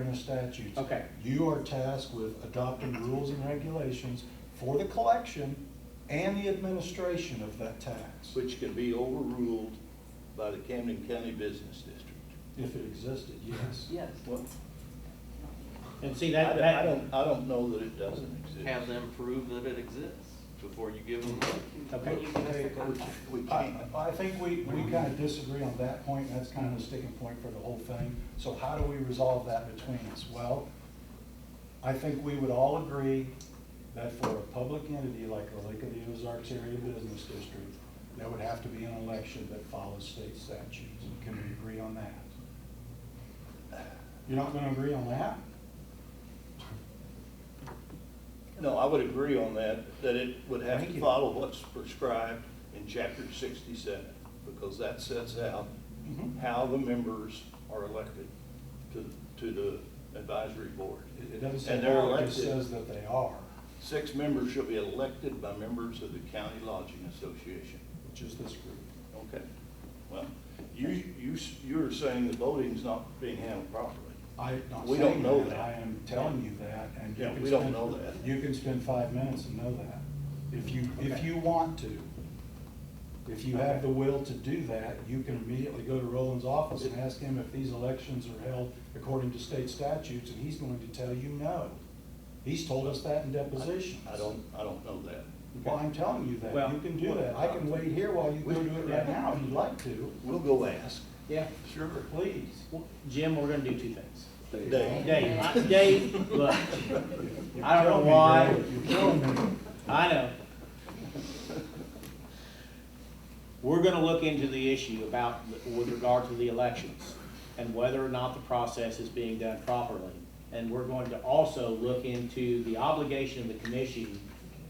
in the statutes. Okay. You are tasked with adopting rules and regulations for the collection and the administration of that tax, which can be overruled by the Camden County Business District. if it existed, yes. Yes. Well, And see, I that, don't, that. I don't, I don't know that it doesn't exist. have them prove that it exists before you give them. Okay. We I, can't, I think we, we kind of disagree on that point, and that's kind of a sticking point for the whole thing. So how do we resolve that between us? Well, I think we would all agree that for a public entity like the Lake of the Ozarks Area Business District, there would have to be an election that follows state statutes. Can we agree on that? You're not gonna agree on that? no, I would agree on that, that it would have Thank to you. follow what's prescribed in chapter sixty-seven, because that sets out Mhm. how the members are elected to, to the advisory board. It- It doesn't say And they're how, it just elected. says that they are, Six members shall be elected by members of the County Lodging Association. which is this group. Okay, well, you, you, s- you're saying the voting's not being handled properly. I'm not We don't saying know that, that. I am telling you that, and you Yeah, can we don't spend- know that. You can spend five minutes and know that, if you, if Okay. you want to. If you have the will to do that, you can immediately go to Roland's office and ask him if these elections are held according to state statutes, and he's going to tell you no. He's told us that in depositions. I don't, I don't know that. Well, I'm telling you that, Well, uh, you can do that, I can wait here while you go we- do it right now if you'd like to, We'll go ask. Yeah. Sure. please. Well, Jim, we're gonna do two things. Dave. Dave, I- Dave, look, You're I killing don't know me, why. Dale. You're killing me. I know. We're gonna look into the issue about, with regard to the elections and whether or not the process is being done properly. And we're going to also look into the obligation of the commission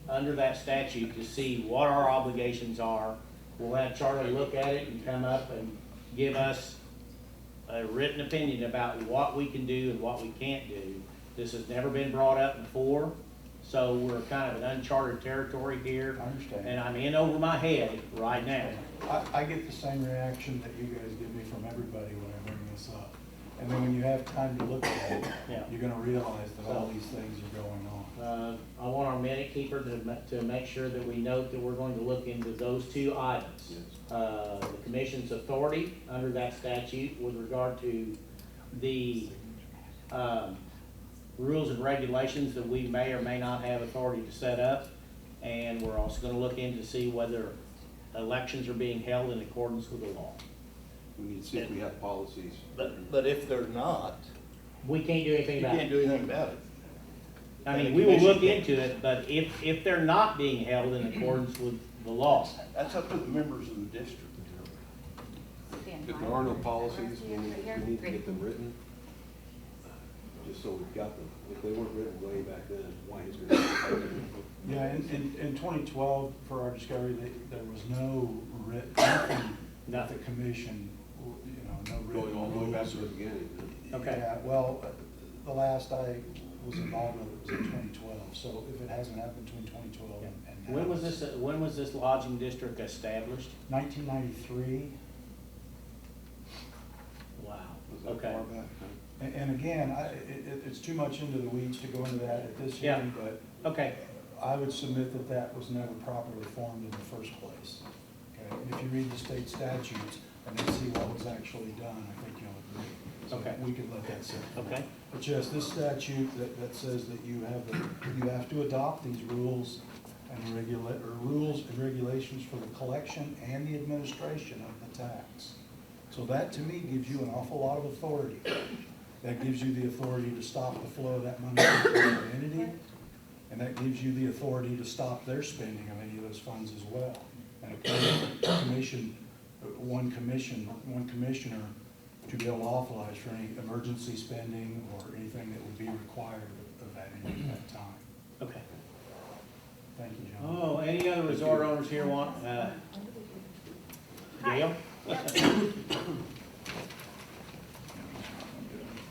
under that statute to see what our obligations are. We'll have Charlie look at it and come up and give us a written opinion about what we can do and what we can't do. This has never been brought up before, so we're kind of in uncharted territory here. I understand. And I'm in over my head right now. I, I get the same reaction that you guys give me from everybody when I bring this up. And then when you have time to look at it, Yeah. you're gonna realize that all these things are going on. Uh, I want our minute keeper to, ma- to make sure that we note that we're going to look into those two items. Uh, the commission's authority under that statute with regard to the, um, rules and regulations that we may or may not have authority to set up. And we're also gonna look in to see whether elections are being held in accordance with the law. We need to see if we have policies. But, but if they're not, We can't do anything you about it. can't do anything about it. I mean, we will look into it, but if, if they're not being held in accordance with the law, That's up to the members of the district. If there are no policies, we need, we need to get them written, just so we've got them. If they weren't written way back then, why is it? Yeah, in, in, in twenty twelve, for our discovery, they, there was no writ, nothing, that the commission, you know, no written. Going all the way back to the rules or- beginning. huh? Okay. Yeah, well, the last I was involved with it was in twenty twelve, so if it hasn't happened between twenty twelve and and now. when was this, when was this lodging district established? Nineteen ninety-three. Wow, Was that okay. far back, huh? And, and again, I, it, it- it's too much into the weeds to go into that at this Yeah. hearing, but Okay, I would submit that that was never properly formed in the first place. Okay, and if you read the state statutes and then see what was actually done, I think you'll agree. So Okay. We could let that sit. okay, But yes, this statute that, that says that you have, the- you have to adopt these rules and regulate, or rules and regulations for the collection and the administration of the tax. So that, to me, gives you an awful lot of authority. That gives you the authority to stop the flow of that money to the entity, and that gives you the authority to stop their spending of any of those funds as well. And a commission, one commission, one commissioner to be able to authorize for any emergency spending or anything that would be required of that entity at that time. okay. Thank you, John. Oh, any other resort owners here want, uh, Gail?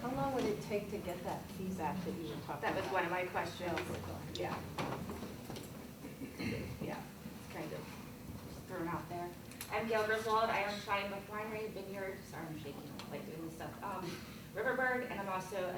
How long would it take to get that fees act that you were talking That about? was one of my questions, yeah. Yeah, it's kind of just thrown out there. I'm Gail Griswold, I own Shine Winery Vineyard, sorry, I'm shaking, like doing this stuff. Um, Riverbird, and I'm also a